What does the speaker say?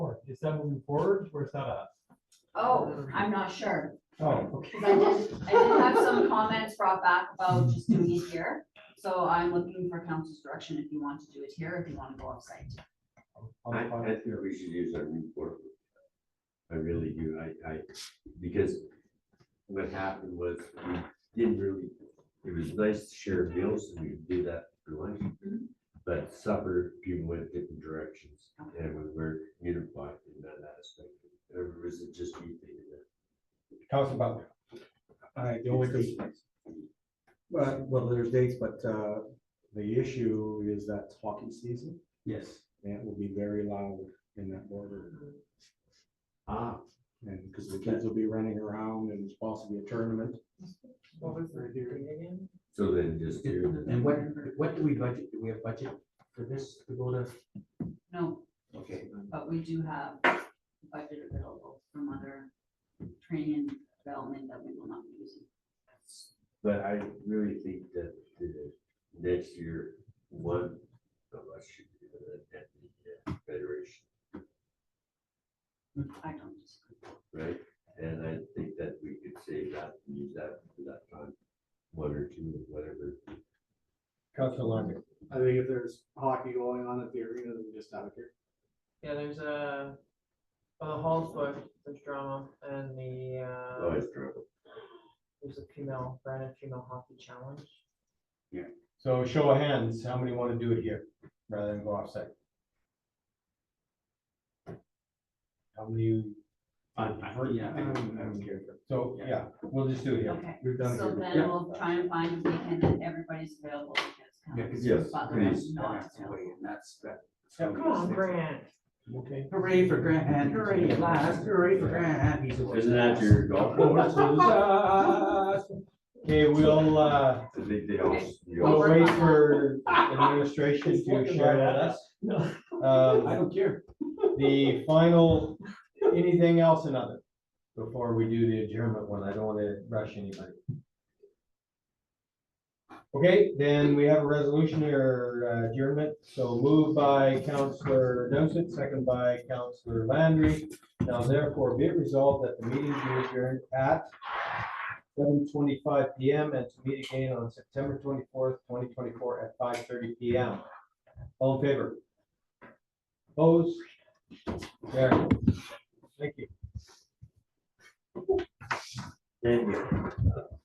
is that moving forward or is that us? Oh, I'm not sure, Oh, okay. 'cause I did, I did have some comments brought back about just doing it here. So I'm looking for council's direction if you want to do it here, if you want to go offsite. I'll- I, I'll- I think we should use our new portal. I really do, I, I, because what happened was, we didn't really, it was nice to share meals, and we could do that for lunch. Mhm. But supper, people went different directions, Okay. and we were unified in that aspect, or was it just you thinking that? Council Butler. I, the only, cons- well, well, there's dates, but uh, the issue is that it's hockey season, Yes. and it will be very loud in that border. Ah, And because the kids will be running around and it's possibly a tournament. What was the hearing again? so then just do And what, what do we budget, do we have budget for this to go to? No, Okay. but we do have budget available from other training and development that we will not be using. But I really think that the next year, one of us should be the deputy federation, I don't disagree. right? And I think that we could save that, and use that for that time, one or two, or whatever. Council London. I think if there's hockey going on at the arena, then just have it here. Yeah, there's a, well, the Hall's book, there's drama, and the, uh, Always trouble. there's a female, Brandon Female Hockey Challenge. So show of hands, how many want to do it here rather than go offsite? How many? Yeah, I'm here. So, yeah, we'll just do it here. Okay, We've done it so here. then we'll try and find a weekend that everybody's available. because Yes, Butler please. is uh, not available. Yeah, Come on, Grant. Okay. Hooray for Grant, hooray at last, hooray for Grant. He's always Isn't that your golf course? Okay, we'll, uh, I think they all. you we'll all- wait for administration to share with us. Um, I don't care. The final, anything else another before we do the adjournment one, I don't want to rush anybody. Okay, then we have a resolution or uh, adjournment, so moved by Counselor Dumpster, second by Counselor Landry. Now therefore be it resolved that the meeting be adjourned at seven twenty-five P M and to meet again on September twenty-fourth, twenty twenty-four at five thirty P M. All in favor? Opposed? There. Thank you. Thank you.